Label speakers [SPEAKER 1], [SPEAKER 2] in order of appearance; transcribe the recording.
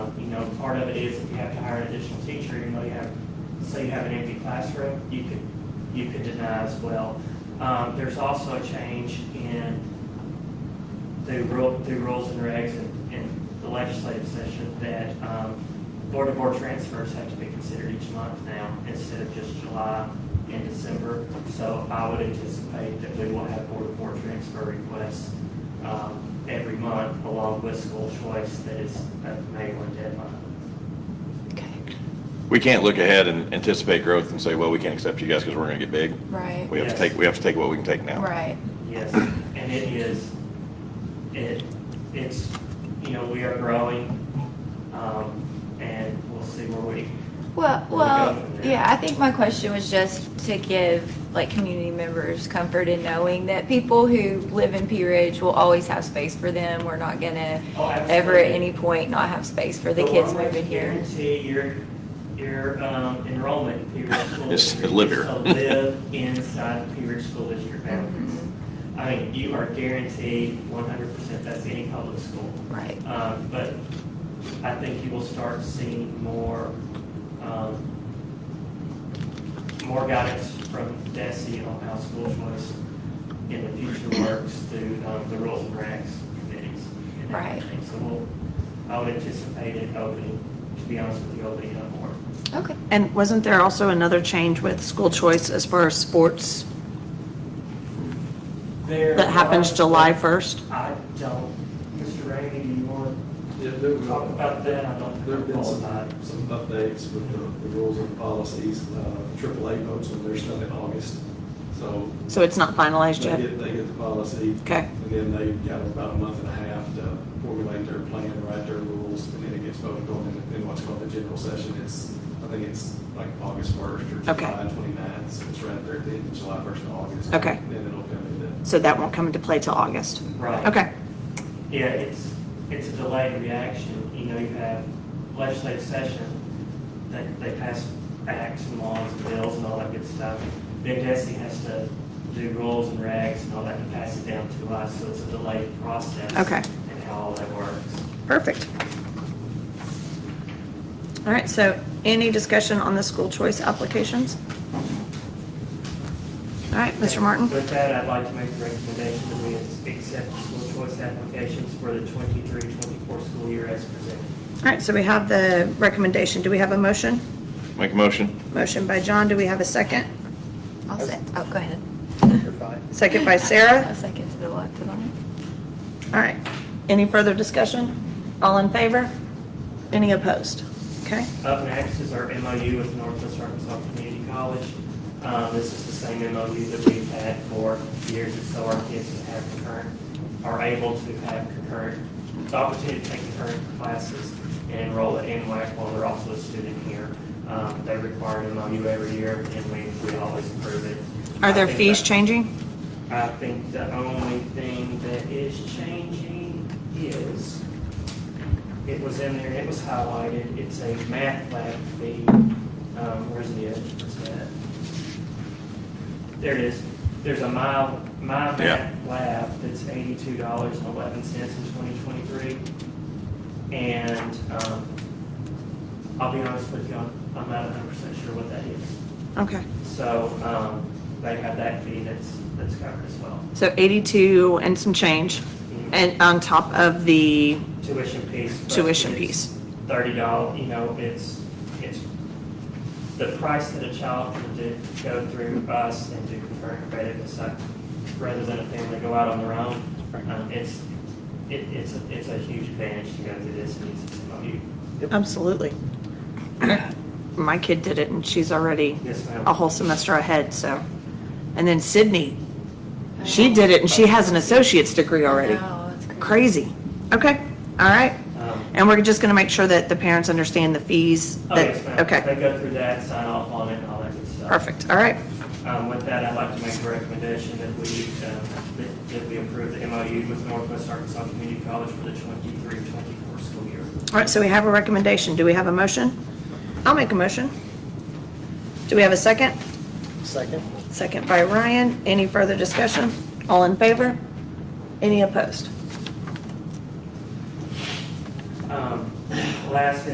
[SPEAKER 1] part of it is if you have to hire an additional teacher, even though you have, say you have an empty classroom, you could, you could deny as well. Um, there's also a change in the rule, the rules and regs in, in the legislative session that, um, board-to-board transfers have to be considered each month now instead of just July and December. So I would anticipate that we will have board-to-board transfer requests, um, every month along with school choice that is a May one deadline.
[SPEAKER 2] Okay,
[SPEAKER 3] We can't look ahead and anticipate growth and say, well, we can't accept you guys because we're going to get big.
[SPEAKER 2] right,
[SPEAKER 3] We have to
[SPEAKER 1] Yes.
[SPEAKER 3] take, we have to take what we can take now.
[SPEAKER 2] right,
[SPEAKER 1] Yes, and it is, it, it's, you know, we are growing, um, and we'll see where we,
[SPEAKER 2] well,
[SPEAKER 1] We'll
[SPEAKER 2] well,
[SPEAKER 1] go from there.
[SPEAKER 2] yeah, I think my question was just to give, like, community members comfort in knowing that people who live in P Ridge will always have space for them, we're not gonna
[SPEAKER 1] Oh, absolutely.
[SPEAKER 2] ever at any point not have space for the kids
[SPEAKER 1] one way to
[SPEAKER 2] moving here.
[SPEAKER 1] Guarantee your, your, um, enrollment in P Ridge School
[SPEAKER 3] Is to
[SPEAKER 1] District
[SPEAKER 3] live here.
[SPEAKER 1] is to live inside the P Ridge School District boundaries.
[SPEAKER 2] Mm-hmm.
[SPEAKER 1] I mean, you are guaranteed one hundred percent, that's any public school.
[SPEAKER 2] Right,
[SPEAKER 1] Um, But I think you will start seeing more, um, more guidance from DESI on how school choice in the future works through um, the rules and regs committees and
[SPEAKER 2] Right.
[SPEAKER 1] everything. So we'll, I would anticipate it opening, to be honest with you, opening up more.
[SPEAKER 2] okay,
[SPEAKER 4] And wasn't there also another change with school choice as far as sports that happens July 1st?
[SPEAKER 1] I don't, Mr. Rainey, do you want
[SPEAKER 5] Yeah, there
[SPEAKER 1] to talk
[SPEAKER 5] were,
[SPEAKER 1] about that? I don't
[SPEAKER 5] there have
[SPEAKER 1] think I'm
[SPEAKER 5] been some,
[SPEAKER 1] qualified.
[SPEAKER 5] some updates with the, the rules and policies, uh, triple A votes on their stuff in August. So
[SPEAKER 4] So it's not finalized
[SPEAKER 5] they
[SPEAKER 4] yet?
[SPEAKER 5] get, they get the policy.
[SPEAKER 4] Okay.
[SPEAKER 5] And then they got about a month and a half to formulate their plan, write their rules, and then it gets voted on in, in what's called the general session. It's, I think it's like August first or
[SPEAKER 4] Okay.
[SPEAKER 5] July twenty-ninth, so it's right there at the end of July first and August.
[SPEAKER 4] Okay.
[SPEAKER 5] Then it'll come into
[SPEAKER 4] So that won't come into play till August?
[SPEAKER 1] Right.
[SPEAKER 4] Okay,
[SPEAKER 1] Yeah, it's, it's a delayed reaction. You know, you have legislative session, they, they pass acts and laws and bills and all that good stuff. Then Desi has to do rules and regs and all that and pass it down to us, so it's a delayed process.
[SPEAKER 4] Okay.
[SPEAKER 1] And how all that works.
[SPEAKER 4] perfect. All right, so any discussion on the school choice applications? All right, Mr. Martin?
[SPEAKER 1] With that, I'd like to make the recommendation that we accept school choice applications for the 23-24 school year as presented.
[SPEAKER 4] All right, so we have the recommendation. Do we have a motion?
[SPEAKER 3] Make a motion?
[SPEAKER 4] Motion by John, do we have a second?
[SPEAKER 2] I'll say, oh, go ahead.
[SPEAKER 4] Second by
[SPEAKER 2] A
[SPEAKER 4] Sarah?
[SPEAKER 2] second to the left of that.
[SPEAKER 4] All right, any further discussion? All in favor? Any opposed? Okay,
[SPEAKER 1] Up next is our MOU with Northwest Arkansas Community College. Um, This is the same MOU that we've had for years, and so our kids that have concurrent, are able to have concurrent, the opportunity to take concurrent classes and enroll at NWAC while they're also a student here. Um, They require an MOU every year, and we, we always approve it.
[SPEAKER 4] are
[SPEAKER 1] I
[SPEAKER 4] there
[SPEAKER 1] think
[SPEAKER 4] fees
[SPEAKER 1] that-
[SPEAKER 4] changing?
[SPEAKER 1] I think the only thing that is changing is, it was in there, it was highlighted, it's a math lab fee. Um, where's the, where's that? There it is. There's a mile, my
[SPEAKER 3] Yeah.
[SPEAKER 1] math lab that's eighty-two dollars and eleven cents in twenty twenty-three. And, um, I'll be honest with you, I'm I'm not hundred percent sure what that is.
[SPEAKER 4] Okay,
[SPEAKER 1] So, um, they have that fee that's, that's covered as well.
[SPEAKER 4] so 82 and some change, and on top of the,
[SPEAKER 1] Tuition piece. but
[SPEAKER 4] Tuition
[SPEAKER 1] it's
[SPEAKER 4] piece.
[SPEAKER 1] Thirty dollars, you know, it's, it's the price that a child can do, go through us and do concurrent credit and stuff, rather than a family go out on their own. Um, it's, it, it's, a- it's a huge advantage to go through this and use this MOU.
[SPEAKER 4] absolutely. My kid did it, and she's already
[SPEAKER 1] Yes, ma'am.
[SPEAKER 4] a whole semester ahead, so. And then Sydney, she did it, and she has an associate's degree already.
[SPEAKER 2] Wow, that's
[SPEAKER 4] Crazy. Okay, all right.
[SPEAKER 1] Um,
[SPEAKER 4] And we're just going to make sure that the parents understand the fees.
[SPEAKER 1] Oh,
[SPEAKER 4] that-
[SPEAKER 1] yes, ma'am.
[SPEAKER 4] Okay,
[SPEAKER 1] They go through that, sign off on it, and all that good stuff.
[SPEAKER 4] perfect, all right.
[SPEAKER 1] Um, With that, I'd like to make a recommendation that we, uh, that- that we approve the MOU with Northwest Arkansas Community College for the 23-24 school year.
[SPEAKER 4] All right, so we have a recommendation. Do we have a motion? I'll make a motion. Do we have a second?
[SPEAKER 6] Second?
[SPEAKER 4] Second by Ryan. Any further discussion? All in favor? Any opposed?
[SPEAKER 1] Um, Last